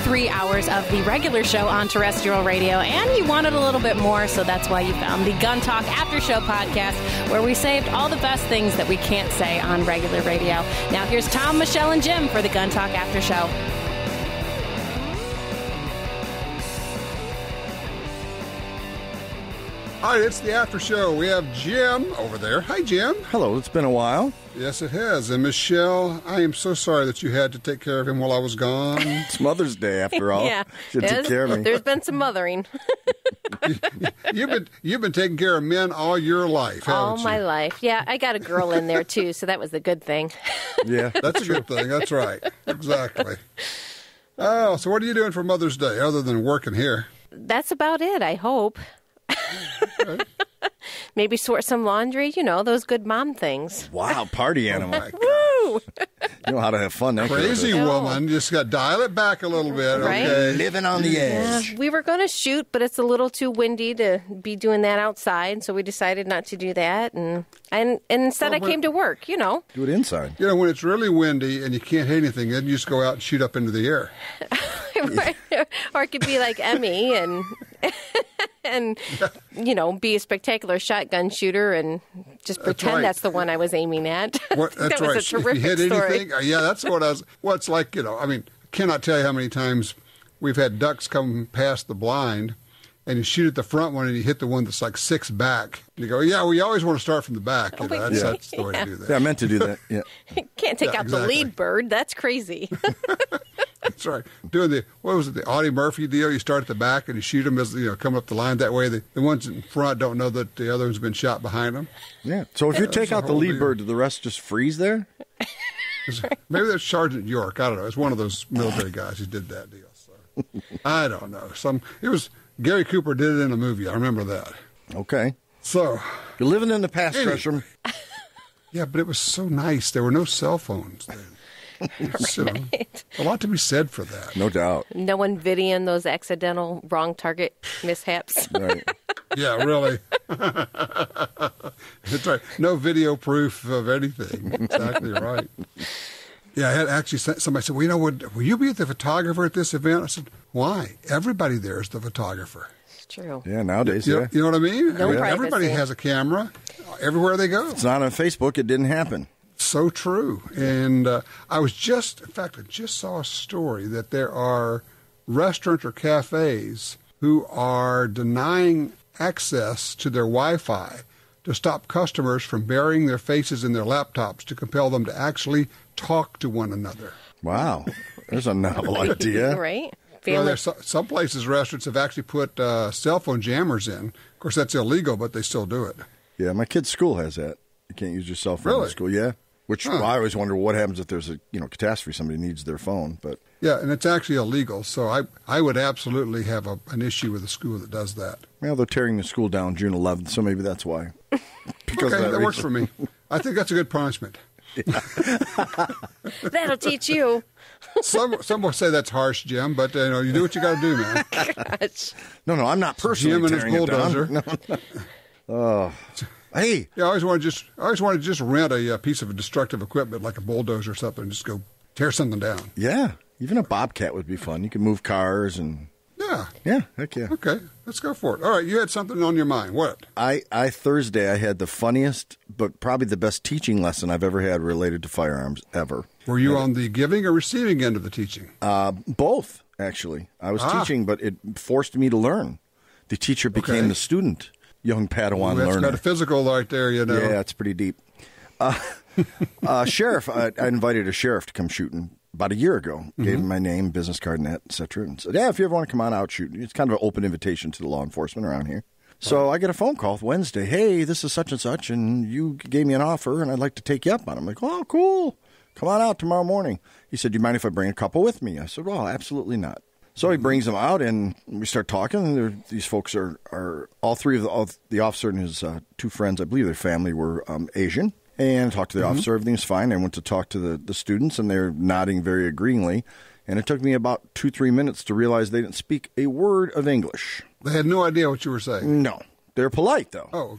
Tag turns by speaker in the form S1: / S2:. S1: three hours of the regular show on terrestrial radio, and you wanted a little bit more, so that's why you found the Gun Talk After Show podcast, where we saved all the best things that we can't say on regular radio. Now, here's Tom, Michelle, and Jim for the Gun Talk After Show.
S2: Hi, it's the after show. We have Jim over there. Hi, Jim.
S3: Hello, it's been a while.
S2: Yes, it has. And Michelle, I am so sorry that you had to take care of him while I was gone.
S3: It's Mother's Day after all.
S4: Yeah.
S3: Should take
S4: There's-
S3: care of me.
S4: There's been some mothering
S2: you've been you've been taking care of men all your life,
S3: Oh,
S2: haven't
S4: all
S2: you?
S4: my life. Yeah, I got a girl in there too, so that was the good thing.
S3: Yeah.
S2: That's a good thing. That's right. Exactly. Oh, so what are you doing for Mother's Day other than working here?
S4: That's about it, I hope. Maybe sort some laundry, you know, those good mom things.
S3: Wow, party animal.
S2: Like,
S4: Woo!
S3: You know how to have fun. don't you?
S2: crazy
S4: No.
S2: woman. Just got to dial it back a little bit.
S4: Right?
S2: Okay.
S3: Living on the
S4: Yeah,
S3: edge.
S4: we were going to shoot, but it's a little too windy to be doing that outside, so we decided not to do that and and, and instead I came to work, you know.
S3: Do it inside.
S2: You know, when it's really windy and you can't hit anything, then you just go out and shoot up into the air.
S4: or it could be like Emmy and and you know be a spectacular shotgun shooter and just pretend
S2: right.
S4: that's the one I was aiming at.
S2: What,
S4: that
S2: that's
S4: was
S2: right.
S4: a terrific
S2: if you hit
S4: story.
S2: anything, uh, yeah, that's what I was. What's like, you know, I mean, cannot tell you how many times we've had ducks come past the blind, and you shoot at the front one and you hit the one that's like six back. And you go, yeah, well, you always want to start from the back.
S4: Oh,
S2: You know, that's,
S3: Yeah.
S2: that's the way to do that.
S3: Yeah, I meant to do that. Yeah.
S4: Can't take
S2: Yeah,
S4: out the
S2: exactly.
S4: lead bird. That's crazy.
S2: That's right. Doing the what was it, the Audie Murphy deal? You start at the back and you shoot them as you know coming up the line. That way, the, the ones in front don't know that the other one's been shot behind them.
S3: Yeah. So if you take out the
S2: whole
S3: lead
S2: deal.
S3: bird, do the rest just freeze there?
S2: Maybe that's Sergeant York. I don't know. It's one of those military guys who did that deal. So. I don't know. Some it was Gary Cooper did it in a movie. I remember that.
S3: Okay.
S2: So
S3: You're living in the past,
S2: Anyway.
S3: Gresham.
S2: yeah, but it was so nice. There were no cell phones then. So, a lot to be said for that.
S3: No doubt.
S4: no one videoing those accidental wrong target mishaps.
S3: All right.
S2: Yeah, really. That's right. No video proof of anything. Exactly right. Yeah, I had actually sent- somebody said, "Well, you know, would will you be the photographer at this event?" I said, "Why? Everybody there is the photographer.
S4: It's true.
S3: Yeah, nowadays,
S2: You, know,
S3: yeah.
S2: you know what I mean?
S4: No
S2: I mean, everybody
S4: privacy.
S2: has a camera everywhere they go.
S3: It's not on Facebook. It didn't happen.
S2: So true. And uh, I was just, in fact, I just saw a story that there are restaurants or cafes who are denying access to their Wi Fi to stop customers from burying their faces in their laptops to compel them to actually talk to one another.
S3: Wow. There's a novel idea.
S4: Right?
S2: Well,
S4: Family-
S2: there's so- some places, restaurants have actually put uh, cell phone jammers in. Of course, that's illegal, but they still do it.
S3: Yeah, my kid's school has that. You can't use your cell phone
S2: Really?
S3: in school. Yeah. Which I always wonder what happens if there's a you know catastrophe. Somebody needs their phone, but
S2: Yeah, and it's actually illegal. So I, I would absolutely have a, an issue with a school that does that.
S3: Well, they're tearing the school down June 11th, so maybe that's why. Because
S2: Okay,
S3: of
S2: that, works for
S3: reason.
S2: me. I think that's a good punishment.
S4: That'll teach you.
S2: Some some will say that's harsh, Jim, but you know you do what you got to do, man.
S4: Gosh.
S3: No, no, I'm not personally
S2: Jim and his
S3: tearing it down.
S2: bulldozer.
S3: No, no. Oh. hey,
S2: Yeah, I always want to just I always want to just rent a, uh piece of destructive equipment like a bulldozer or something, and just go tear something down.
S3: yeah, even a bobcat would be fun. You can move cars and
S2: Yeah.
S3: yeah, heck yeah.
S2: Okay, let's go for it. All right, you had something on your mind. What?
S3: I, I Thursday I had the funniest but probably the best teaching lesson I've ever had related to firearms ever.
S2: Were you on the giving or receiving end of the teaching?
S3: Uh, both actually. I was
S2: Ah.
S3: teaching, but it forced me to learn. The teacher became
S2: Okay.
S3: the student, young Padawan
S2: that's
S3: learner.
S2: metaphysical right there, you know.
S3: Yeah, it's pretty deep. Uh, uh, sheriff, I, I invited a sheriff to come shooting about a year ago.
S2: Mm-hmm.
S3: Gave him my name, business card, and that, et cetera, and said, "Yeah, if you ever want to come on out shooting, it's kind of an open invitation to the law enforcement around here." So I get a phone call Wednesday. Hey, this is such and such, and you gave me an offer, and I'd like to take you up on. it. I'm like, "Oh, cool. Come on out tomorrow morning." He said, "Do you mind if I bring a couple with me?" I said, "Well, absolutely not." So he brings them out, and we start talking. And there- these folks are, are all three of the, all, the officer and his uh, two friends, I believe their family were um, Asian. And talked to the officer, everything's fine. I went to talk to the, the students, and they're nodding very agreeingly. And it took me about two, three minutes to realize they didn't speak a word of English.
S2: They had no idea what you were saying.
S3: No. They're polite, though.
S2: Oh,